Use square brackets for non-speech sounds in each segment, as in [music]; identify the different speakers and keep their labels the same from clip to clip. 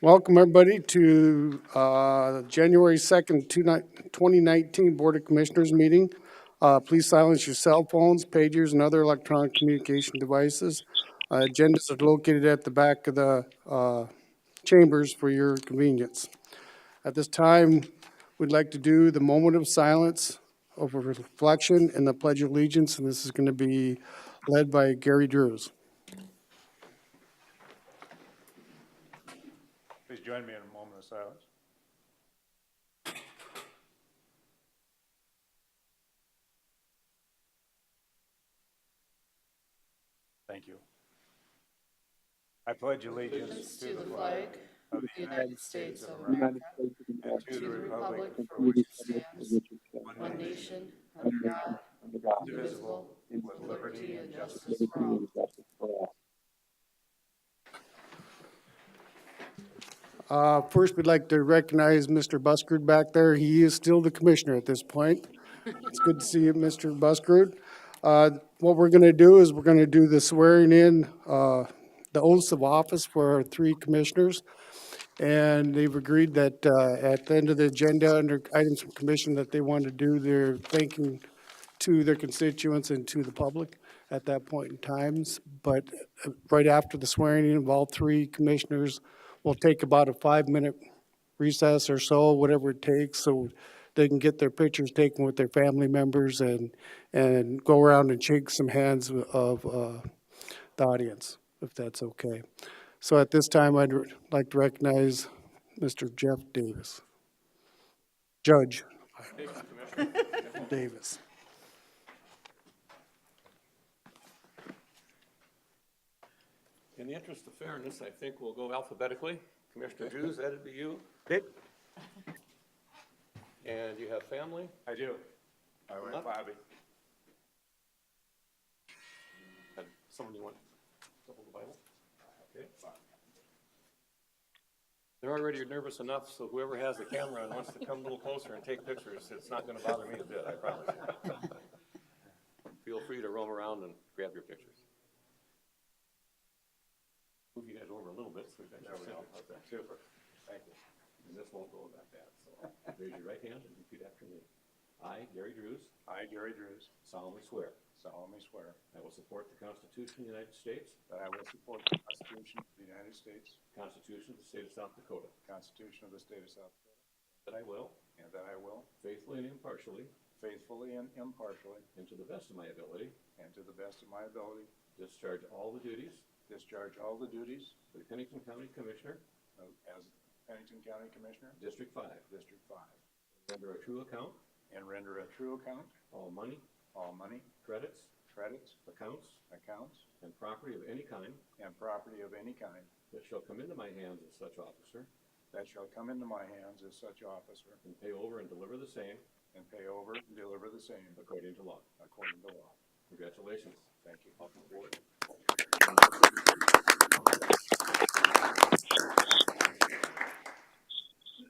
Speaker 1: Welcome, everybody, to uh, January 2nd, two ni- 2019 Board of Commissioners meeting. Uh, Please silence your cell phones, pagers, and other electronic communication devices. Uh, Agendas are located at the back of the uh, chambers for your convenience. At this time, we'd like to do the moment of silence over reflection and the Pledge of Allegiance, and this is going to be led by Gary Drews.
Speaker 2: Please join me in a moment of silence. Thank you. I pledge allegiance to the flag of the United States of America
Speaker 3: United States of
Speaker 2: and
Speaker 3: America,
Speaker 2: to the republic for
Speaker 3: we
Speaker 2: which
Speaker 3: do
Speaker 2: it
Speaker 3: submit to
Speaker 2: stands,
Speaker 3: which it stands,
Speaker 2: one nation,
Speaker 3: one nation, under God,
Speaker 2: indivisible, with liberty and justice
Speaker 3: liberty and justice for all.
Speaker 1: Uh, First, we'd like to recognize Mr. Buskird back there. He is still the commissioner at this point. It's good to see you, Mr. Buskird. Uh, What we're going to do is we're going to do the swearing in, uh, the oaths of office for our three commissioners. And they've agreed that uh, at the end of the agenda, under items from commission, that they want to do their thanking to their constituents and to the public at that point in times. But uh, right after the swearing in of all three commissioners, we'll take about a five-minute recess or so, whatever it takes, so they can get their pictures taken with their family members and, and go around and shake some hands of uh, the audience, if that's okay. So at this time, I'd like to recognize Mr. Jeff Davis. Judge. Davis.
Speaker 4: In the interest of fairness, I think we'll go alphabetically.
Speaker 2: [laughs]
Speaker 4: Commissioner Drews, that'd be you. And you have family?
Speaker 2: I do. I went Bobby.
Speaker 4: And Someone you want to hold the Bible?
Speaker 2: Okay.
Speaker 4: They're already nervous enough, so whoever has the camera and wants to come a little closer and take pictures, it's not going to bother me a bit, I promise.
Speaker 2: [laughs]
Speaker 4: Feel free to roam around and grab your pictures. Move you guys over a little bit so we got your center.
Speaker 2: Super. Thank you.
Speaker 4: And this won't go about that, so raise your right hand and repeat after me. I, Gary Drews,
Speaker 2: I, Gary Drews,
Speaker 4: solemnly swear
Speaker 2: solemnly swear
Speaker 4: I will support the Constitution of the United States,
Speaker 2: that I will support the Constitution of the United States,
Speaker 4: the Constitution of the State of South Dakota,
Speaker 2: the Constitution of the State of South Dakota,
Speaker 4: that I will
Speaker 2: and that I will
Speaker 4: faithfully and impartially,
Speaker 2: faithfully and impartially,
Speaker 4: and to the best of my ability,
Speaker 2: and to the best of my ability,
Speaker 4: discharge all the duties
Speaker 2: discharge all the duties
Speaker 4: for the Pennington County Commissioner,
Speaker 2: of- as Pennington County Commissioner,
Speaker 4: District Five,
Speaker 2: District Five,
Speaker 4: under a true account,
Speaker 2: and render a true account
Speaker 4: all money,
Speaker 2: all money,
Speaker 4: credits,
Speaker 2: credits,
Speaker 4: accounts,
Speaker 2: accounts,
Speaker 4: and property of any kind
Speaker 2: and property of any kind
Speaker 4: that shall come into my hands as such officer,
Speaker 2: that shall come into my hands as such officer,
Speaker 4: and pay over and deliver the same
Speaker 2: and pay over and deliver the same
Speaker 4: according to law.
Speaker 2: according to law.
Speaker 4: Congratulations.
Speaker 2: Thank you.
Speaker 4: Welcome aboard.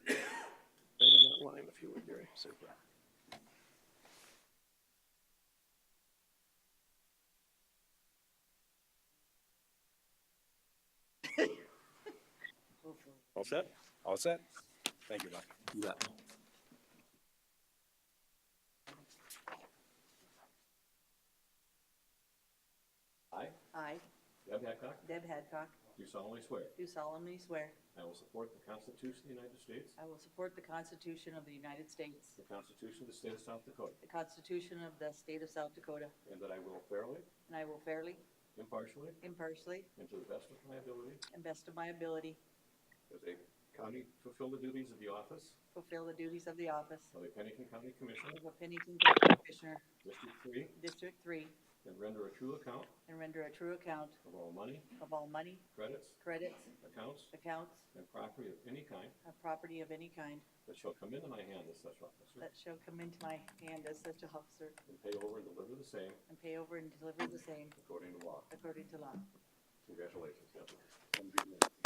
Speaker 4: Right on that line, if you would, Gary. Super. All set?
Speaker 2: All set? Thank you, Doc.
Speaker 4: You bet. I,
Speaker 5: I,
Speaker 4: Deb Hancock,
Speaker 5: Deb Hadcock,
Speaker 4: do solemnly swear
Speaker 5: do solemnly swear
Speaker 4: I will support the Constitution of the United States,
Speaker 5: I will support the Constitution of the United States,
Speaker 4: the Constitution of the State of South Dakota,
Speaker 5: the Constitution of the State of South Dakota,
Speaker 4: and that I will fairly,
Speaker 5: and I will fairly,
Speaker 4: impartially,
Speaker 5: impartially,
Speaker 4: and to the best of my ability,
Speaker 5: and best of my ability,
Speaker 4: as a county, fulfill the duties of the office
Speaker 5: fulfill the duties of the office
Speaker 4: of a Pennington County Commissioner,
Speaker 5: of a Pennington County Commissioner,
Speaker 4: District Three,
Speaker 5: District Three,
Speaker 4: and render a true account
Speaker 5: and render a true account
Speaker 4: of all money,
Speaker 5: of all money,
Speaker 4: credits,
Speaker 5: credits,
Speaker 4: accounts,
Speaker 5: accounts,
Speaker 4: and property of any kind
Speaker 5: of property of any kind
Speaker 4: that shall come into my hand as such officer,
Speaker 5: that shall come into my hand as such officer,
Speaker 4: and pay over and deliver the same
Speaker 5: and pay over and deliver the same
Speaker 4: according to law.
Speaker 5: according to law.
Speaker 4: Congratulations. Captain.